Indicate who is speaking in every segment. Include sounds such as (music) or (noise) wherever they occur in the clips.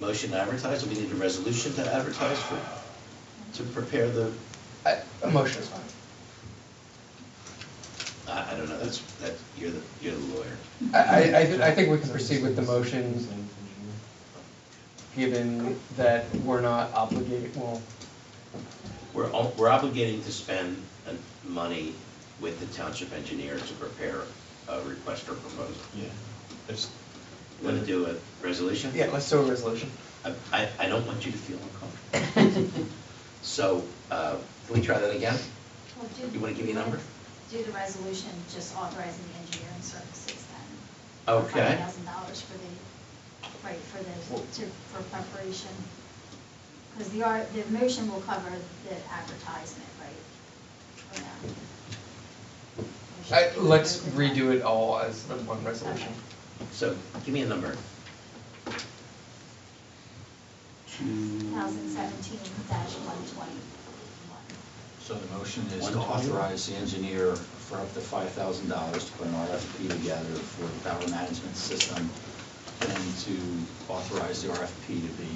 Speaker 1: motion to advertise, and we need a resolution to advertise for, to prepare the,
Speaker 2: I- A motion is fine.
Speaker 1: I, I don't know, that's, that, you're the, you're the lawyer.
Speaker 2: I, I- I, thi- I think we can proceed with the motion, given that we're not obligated, well,
Speaker 1: We're, o- we're obligated to spend uh, money with the township engineer to prepare a request or proposal.
Speaker 3: Yeah, it's,
Speaker 1: Want to do a resolution?
Speaker 2: yeah, let's do a resolution.
Speaker 1: I- I, I don't want you to feel uncomfortable. (laughs) So, uh, can we try that again?
Speaker 4: Well, do-
Speaker 1: You wanna give me a number?
Speaker 4: Do the resolution just authorizing the engineering services then.
Speaker 1: Okay.
Speaker 4: Five thousand dollars for the, right, for the, to, for preparation. Because the art, the motion will cover the advertisement, right? Or no? We should
Speaker 2: I,
Speaker 4: do
Speaker 2: let's
Speaker 4: both of them.
Speaker 2: redo it all as the one resolution.
Speaker 1: So, give me a number. Two.
Speaker 4: 2017-121.
Speaker 3: so the motion is
Speaker 1: One
Speaker 3: to
Speaker 1: twenty?
Speaker 3: authorize the engineer for up to five thousand dollars to put an RFP together for the power management system and to authorize the RFP to be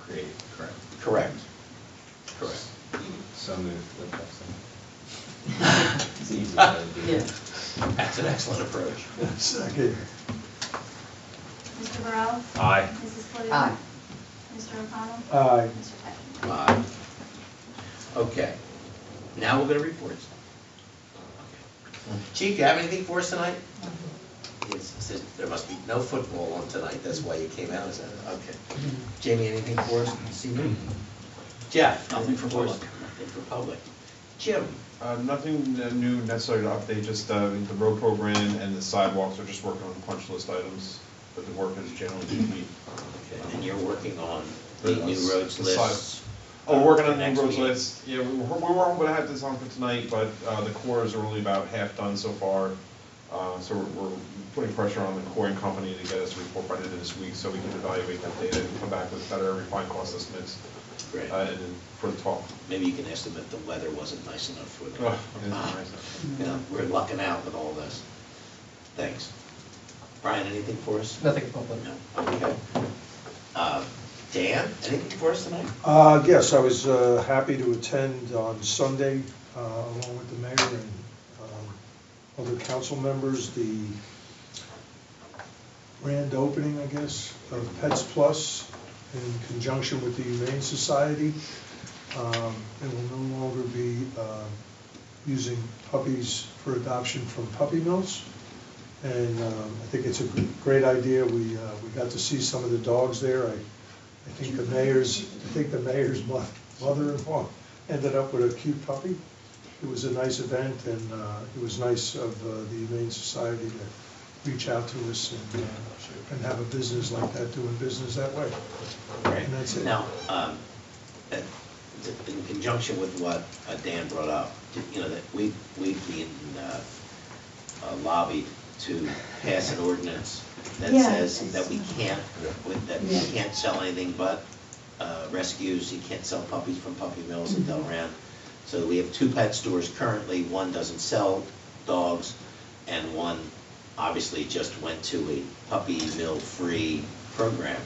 Speaker 3: created, correct?
Speaker 1: Correct. Correct.
Speaker 5: So moved, that's awesome. It's an easy way to do it.
Speaker 1: That's an excellent approach.
Speaker 5: Second.
Speaker 4: Mr. Burrell?
Speaker 5: Aye.
Speaker 4: Mrs. Cloutier?
Speaker 6: Aye.
Speaker 4: Mr. O'Connell?
Speaker 5: Aye.
Speaker 4: Mr. Peck?
Speaker 1: Aye. Okay, now we'll go to reports. Chief, you have anything for us tonight? Yes, it says there must be no football on tonight, that's why you came out, is that, okay. Jamie, anything for us this evening? Jeff?
Speaker 3: Nothing for
Speaker 1: us.
Speaker 3: public.
Speaker 1: Nothing for public. Jim?
Speaker 7: Uh, Nothing uh, new necessarily to update, just uh, the road program and the sidewalks are just working on punch list items, but the work is generally complete.
Speaker 1: Okay, And you're working on the new
Speaker 7: The
Speaker 1: roads
Speaker 7: side-
Speaker 1: lists?
Speaker 7: Oh, we're working on
Speaker 1: next
Speaker 7: new roads
Speaker 1: meeting.
Speaker 7: list, yeah, we we weren't gonna have this on for tonight, but uh, the cores are only about half done so far. Uh, So we're- we're putting pressure on the coring company to get us a report by the end of this week, so we can evaluate that data and come back with better refined cost estimates.
Speaker 1: Great.
Speaker 7: uh, And then for the talk.
Speaker 1: Maybe you can estimate the weather wasn't nice enough for them. (laughs)
Speaker 7: Oh, it is nice.
Speaker 1: You know, we're lucking out with all this. Thanks. Brian, anything for us?
Speaker 2: Nothing public.
Speaker 1: No, okay. Uh, Dan, anything for us tonight?
Speaker 8: Uh, Yes, I was uh, happy to attend on Sunday, uh, along with the mayor and um, other council members, the grand opening, I guess, of Pets Plus in conjunction with the Humane Society. Um, And will no longer be uh, using puppies for adoption from puppy mills. And um, I think it's a gr- great idea. We, uh, we got to see some of the dogs there. I, I think the mayor's, I think the mayor's mo- mother-in-law ended up with a cute puppy. It was a nice event and uh, it was nice of uh, the Humane Society to reach out to us and, uh, and have a business like that, doing business that way. And that's it.
Speaker 1: Now, um, uh, in conjunction with what uh, Dan brought up, you know, that we, we've been uh, uh, lobbied to pass an ordinance that
Speaker 6: Yeah,
Speaker 1: says that we
Speaker 6: it's-
Speaker 1: can't, with- that we
Speaker 6: Yeah.
Speaker 1: can't sell anything but uh, rescues, you can't sell puppies from puppy mills in Delran. So we have two pet stores currently, one doesn't sell dogs, and one obviously just went to a puppy mill-free program.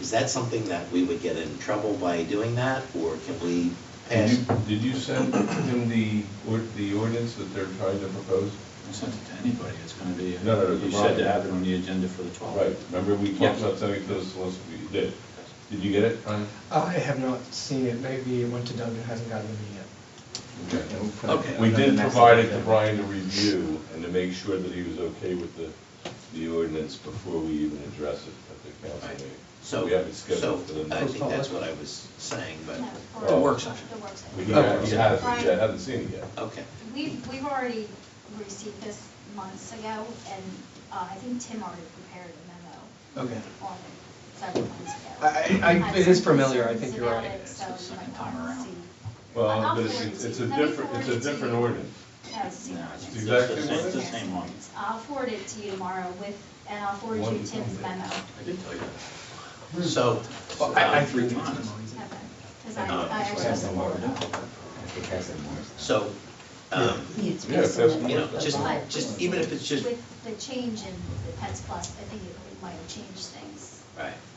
Speaker 1: Is that something that we would get in trouble by doing that, or can we
Speaker 9: Did
Speaker 1: pass?
Speaker 9: you, did you send him the, or- the ordinance that they're trying to propose?
Speaker 3: I sent it to anybody, it's gonna be,
Speaker 9: No, no, no,
Speaker 3: you said to
Speaker 9: tomorrow.
Speaker 3: have it on the agenda for the twelfth.
Speaker 9: Right, remember we talked
Speaker 3: Yeah.
Speaker 9: about sending those, last week? you did. Did you get it, Ryan?
Speaker 2: I have not seen it, maybe it went to Doug and hasn't gotten to me yet.
Speaker 9: Okay.
Speaker 5: Yeah, we'll put it
Speaker 1: Okay.
Speaker 5: on
Speaker 9: We
Speaker 5: the
Speaker 9: did
Speaker 5: next
Speaker 9: provide it to
Speaker 5: agenda.
Speaker 9: Brian to review and to make sure that he was okay with the, the ordinance before we even address it at the council
Speaker 1: Right.
Speaker 9: meeting.
Speaker 1: So,
Speaker 9: We have it
Speaker 1: so
Speaker 9: scheduled for the
Speaker 1: I
Speaker 9: next.
Speaker 1: think that's what I was saying, but,
Speaker 4: No, for-
Speaker 9: The
Speaker 3: work session.
Speaker 4: The work
Speaker 9: We
Speaker 4: session.
Speaker 9: haven't,
Speaker 2: Okay.
Speaker 9: you haven't, you haven't seen it yet.
Speaker 1: okay.
Speaker 4: We've, we've already received this months ago, and uh, I think Tim already prepared a memo.
Speaker 2: Okay.
Speaker 4: On it several months ago.
Speaker 2: I- I-
Speaker 4: Had
Speaker 2: it is
Speaker 4: some
Speaker 2: familiar, I
Speaker 4: concerns
Speaker 2: think you're
Speaker 4: about
Speaker 2: right.
Speaker 4: it, So
Speaker 3: It's the
Speaker 4: you
Speaker 3: second
Speaker 4: might
Speaker 3: time
Speaker 4: want
Speaker 3: around.
Speaker 4: to see.
Speaker 9: Well,
Speaker 4: I'll
Speaker 9: but it's,
Speaker 4: forward it
Speaker 9: it's-
Speaker 4: to
Speaker 9: it's
Speaker 4: you.
Speaker 9: a
Speaker 4: Let me
Speaker 9: different, it's
Speaker 4: forward
Speaker 9: a
Speaker 4: it to
Speaker 9: different
Speaker 4: you.
Speaker 9: ordinance.
Speaker 4: No, uh, it's the same
Speaker 3: No,
Speaker 4: ordinance.
Speaker 9: It's exactly
Speaker 4: It's
Speaker 9: what
Speaker 4: the
Speaker 9: it
Speaker 4: same
Speaker 9: is.
Speaker 3: Same one.
Speaker 4: ordinance. I'll forward it to you tomorrow with, and I'll forward
Speaker 9: One
Speaker 4: you
Speaker 9: is
Speaker 4: Tim's
Speaker 9: something.
Speaker 4: memo.
Speaker 3: I did tell you that.
Speaker 1: So,
Speaker 3: Well,
Speaker 2: I, I
Speaker 1: um,
Speaker 3: three
Speaker 2: think it's
Speaker 3: times.
Speaker 2: memories.
Speaker 4: Because I,
Speaker 1: Uh,
Speaker 4: I
Speaker 5: It
Speaker 4: actually.
Speaker 5: has the more, I think it has the more.
Speaker 1: so, um,
Speaker 6: Needs
Speaker 9: Yeah, if that's-
Speaker 1: you know, just, just, even if it's just,
Speaker 4: With the change in the Pets Plus, I think it might have changed things.
Speaker 1: right.